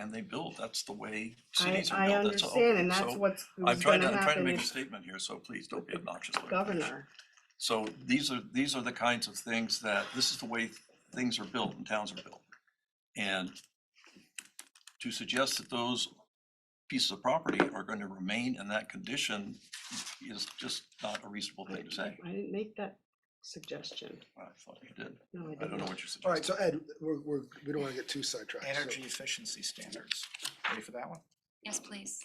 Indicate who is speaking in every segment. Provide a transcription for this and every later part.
Speaker 1: and they build, that's the way
Speaker 2: I,
Speaker 1: cities are
Speaker 2: I
Speaker 1: built, that's all.
Speaker 2: understand, and that's
Speaker 1: So
Speaker 2: what's
Speaker 1: I'm
Speaker 2: what's
Speaker 1: trying to,
Speaker 2: gonna
Speaker 1: I'm trying to
Speaker 2: happen
Speaker 1: make a
Speaker 2: if
Speaker 1: statement here, so please don't be obnoxious. with it.
Speaker 2: governor.
Speaker 1: So these are, these are the kinds of things that, this is the way things are built and towns are built. And to suggest that those pieces of property are going to remain in that condition is just not a reasonable
Speaker 2: I
Speaker 1: thing to say.
Speaker 2: I didn't make that suggestion.
Speaker 1: I thought you did.
Speaker 2: No, I
Speaker 1: I don't know
Speaker 2: didn't.
Speaker 1: what you
Speaker 3: All right,
Speaker 1: suggested.
Speaker 3: so Ed, we're, we're, we don't wanna get too sidetracked. so-
Speaker 4: Energy efficiency standards. Ready for that one?
Speaker 5: Yes, please.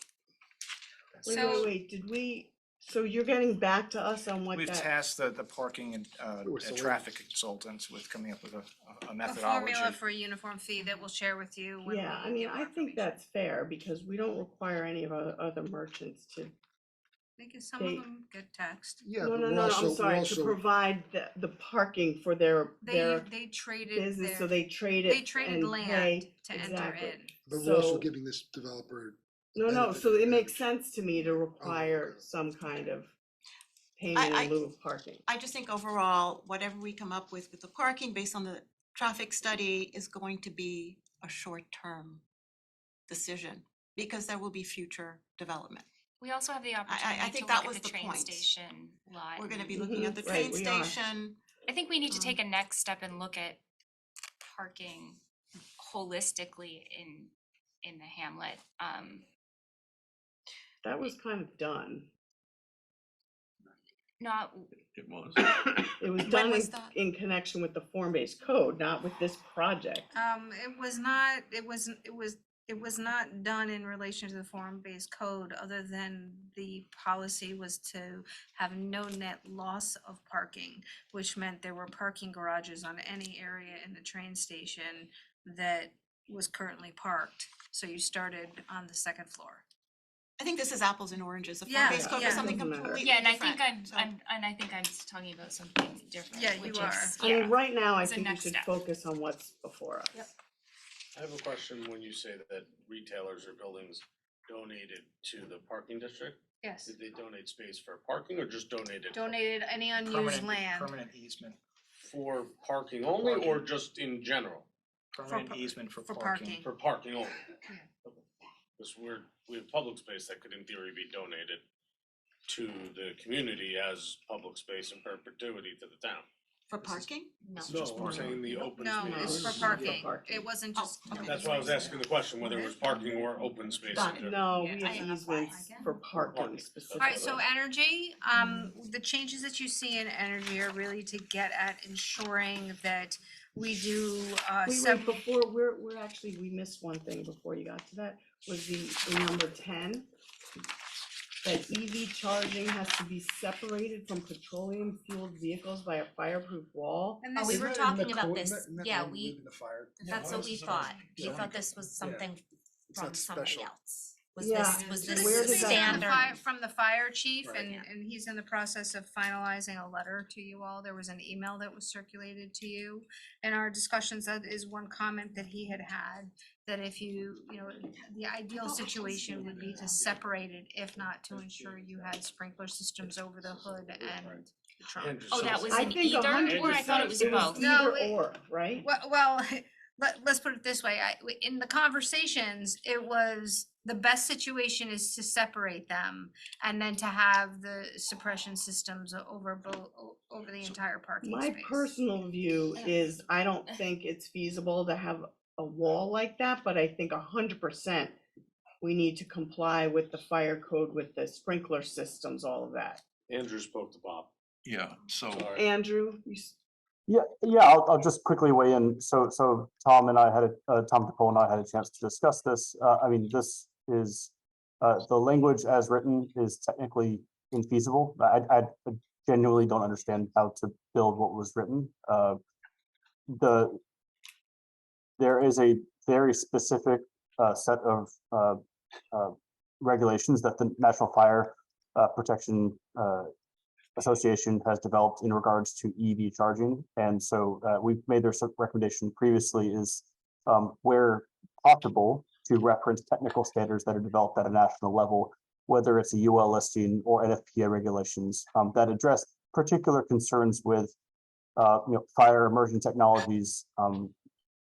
Speaker 2: Wait,
Speaker 5: So-
Speaker 2: wait, wait, did we, so you're getting back to us on what
Speaker 4: We've
Speaker 2: that,
Speaker 4: tasked the, the parking and, uh,
Speaker 3: Ooh,
Speaker 4: and
Speaker 3: so we-
Speaker 4: traffic consultants with coming up with a, a
Speaker 5: A
Speaker 4: methodology.
Speaker 5: formula for a uniform fee that we'll share with you when we
Speaker 2: yeah, I mean,
Speaker 5: get more
Speaker 2: I think
Speaker 5: information.
Speaker 2: that's fair, because we don't require any of our other merchants to.
Speaker 5: Because some of
Speaker 2: they-
Speaker 5: them get taxed.
Speaker 3: Yeah,
Speaker 2: No,
Speaker 3: but
Speaker 2: no,
Speaker 3: we're
Speaker 2: no,
Speaker 3: also,
Speaker 2: I'm
Speaker 3: we're
Speaker 2: sorry, to
Speaker 3: also-
Speaker 2: provide the, the parking for their,
Speaker 5: They,
Speaker 2: their
Speaker 5: they traded
Speaker 2: business, so
Speaker 5: their,
Speaker 2: they trade
Speaker 5: they
Speaker 2: it
Speaker 5: traded
Speaker 2: and
Speaker 5: land
Speaker 2: pay.
Speaker 5: to enter
Speaker 2: exactly.
Speaker 5: in.
Speaker 3: But we're also
Speaker 2: so-
Speaker 3: giving this developer,
Speaker 2: No, no,
Speaker 3: benefit
Speaker 2: so
Speaker 3: of
Speaker 2: it
Speaker 3: the
Speaker 2: makes sense to me to require
Speaker 3: Oh, okay.
Speaker 2: some kind of paying
Speaker 6: I-
Speaker 2: in lieu of parking.
Speaker 6: I just think overall, whatever we come up with with the parking based on the traffic study is going to be a short-term decision because there will be future development.
Speaker 7: We also have the opportunity to
Speaker 6: think that
Speaker 7: look
Speaker 6: was
Speaker 7: at the
Speaker 6: the
Speaker 7: train
Speaker 6: point.
Speaker 7: station lot.
Speaker 6: We're gonna be
Speaker 7: and-
Speaker 6: looking at the
Speaker 2: Mhm,
Speaker 6: train
Speaker 2: right, we are.
Speaker 6: station.
Speaker 7: I think we need to
Speaker 6: um,
Speaker 7: take a next step and look at parking holistically in, in the hamlet. Um,
Speaker 2: That was kind of done.
Speaker 7: not,
Speaker 1: It was.
Speaker 2: It was
Speaker 6: When
Speaker 2: done
Speaker 6: was
Speaker 2: in,
Speaker 6: that?
Speaker 2: in connection with the form-based code, not with this project.
Speaker 5: Um, it was not, it was, it was, it was not done in relation to the form-based code, other than the policy was to have no net loss of parking, which meant there were parking garages on any area in the train station that was currently parked. So you started on the second floor.
Speaker 6: I think this is apples and oranges. The
Speaker 5: Yeah,
Speaker 6: form-based code
Speaker 5: yeah.
Speaker 6: is something
Speaker 2: Doesn't matter.
Speaker 6: completely
Speaker 7: yeah, and I
Speaker 6: different,
Speaker 7: think I'm,
Speaker 6: so-
Speaker 7: I'm, and I think I'm just talking about something different.
Speaker 5: Yeah, you
Speaker 7: which
Speaker 5: are.
Speaker 7: is-
Speaker 2: I mean,
Speaker 7: yeah.
Speaker 2: right now, I
Speaker 7: It's a
Speaker 2: think we
Speaker 7: next
Speaker 2: should
Speaker 7: step.
Speaker 2: focus on what's before us.
Speaker 8: I have a question when you say that retailers or buildings donated to the parking district.
Speaker 5: Yes.
Speaker 8: Did they donate space for parking or just donated?
Speaker 5: Donated any unused
Speaker 4: Permanent-
Speaker 5: land.
Speaker 4: Permanent easement,
Speaker 8: For parking only or
Speaker 4: parking.
Speaker 8: just in general,
Speaker 4: permanent
Speaker 5: par-
Speaker 4: easement for
Speaker 5: for
Speaker 4: parking.
Speaker 5: parking.
Speaker 8: for parking only?
Speaker 5: Yeah.
Speaker 8: Because we're, we have public space that could in theory be donated to the community as public space in perpetuity to the town.
Speaker 6: For
Speaker 4: This is-
Speaker 6: parking? No.
Speaker 4: It's just
Speaker 8: I'm
Speaker 4: parking.
Speaker 8: saying the open
Speaker 5: No, it's
Speaker 8: space.
Speaker 5: for
Speaker 2: for
Speaker 5: parking.
Speaker 2: parking.
Speaker 5: It wasn't
Speaker 6: Oh,
Speaker 5: just.
Speaker 6: okay.
Speaker 8: That's why I was asking the question, whether it was parking or open space.
Speaker 6: Got it.
Speaker 8: in general.
Speaker 2: No,
Speaker 5: Yeah,
Speaker 2: we
Speaker 5: I
Speaker 2: have
Speaker 5: identify
Speaker 2: easements
Speaker 5: again.
Speaker 2: for parking
Speaker 8: Parking.
Speaker 2: specifically.
Speaker 5: Alright, so energy, um, the changes that you see in energy are really to get at ensuring that we do, uh,
Speaker 2: Wait, wait,
Speaker 5: sep-
Speaker 2: before, we're, we're actually, we missed one thing before you got to that, was the, the number ten. That EV charging has to be separated from petroleum fueled vehicles by a fireproof wall.
Speaker 5: And
Speaker 6: Oh,
Speaker 5: this
Speaker 6: we
Speaker 5: is-
Speaker 6: were
Speaker 3: Isn't that in
Speaker 6: talking
Speaker 3: the
Speaker 6: about
Speaker 3: code?
Speaker 6: this.
Speaker 3: Isn't that- isn't that
Speaker 6: Yeah,
Speaker 3: when we
Speaker 6: we-
Speaker 3: live in the fire?
Speaker 6: That's what we thought. We thought this was something
Speaker 3: It's
Speaker 6: from
Speaker 3: not
Speaker 6: somebody
Speaker 3: special.
Speaker 6: else. Was
Speaker 2: Yeah.
Speaker 6: this, was
Speaker 5: This
Speaker 6: this
Speaker 2: Where
Speaker 5: is
Speaker 2: did
Speaker 5: based
Speaker 2: that
Speaker 5: on
Speaker 2: come
Speaker 5: the
Speaker 6: standard?
Speaker 5: fire, from the fire chief
Speaker 4: Right.
Speaker 5: and,
Speaker 6: Yeah.
Speaker 5: and he's in the process of finalizing a letter to you all. There was an email that was circulated to you. In our discussions, that is one comment that he had had, that if you, you know, the
Speaker 8: Oh,
Speaker 5: ideal situation would be to separate it, if not to ensure you had sprinkler systems over the hood and the trunk.
Speaker 8: And
Speaker 7: Oh,
Speaker 8: just-
Speaker 7: that was
Speaker 2: I
Speaker 7: an
Speaker 2: think a
Speaker 7: either,
Speaker 2: hundred
Speaker 7: or I thought it was
Speaker 2: percent
Speaker 7: both.
Speaker 5: No,
Speaker 2: Either
Speaker 5: it-
Speaker 2: or, right?
Speaker 5: Well, well, let, let's put it this way, I, w- in the conversations, it was, the best situation is to separate them and then to have the suppression systems o- over bo- o- over the entire parking
Speaker 2: My
Speaker 5: space.
Speaker 2: personal view is I don't think it's feasible to have a wall like that, but I think a hundred percent we need to comply with the fire code, with the sprinkler systems, all of that.
Speaker 8: Andrew spoke to Bob.
Speaker 1: Yeah, so.
Speaker 8: Sorry.
Speaker 2: Andrew, you, s-
Speaker 9: Yeah, yeah, I'll, I'll just quickly weigh in. So, so Tom and I had, a- uh, Tom DePaul and I had a chance to discuss this. Uh, I mean, this is, uh, the language as written is technically infeasible. I, I genuinely don't understand how to build what was written. Uh, the, there is a very specific, uh, set of, uh, uh, regulations that the National Fire, uh, Protection, uh, association has developed in regards to EV charging. And so uh, we've made their sub- recommendation previously is um, where possible to reference technical standards that are developed at a national level, whether it's a UL listing or NFPA regulations um, that address particular concerns with uh, you know, fire immersion technologies, um,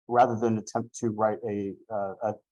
Speaker 9: rather than attempt to write a, uh, a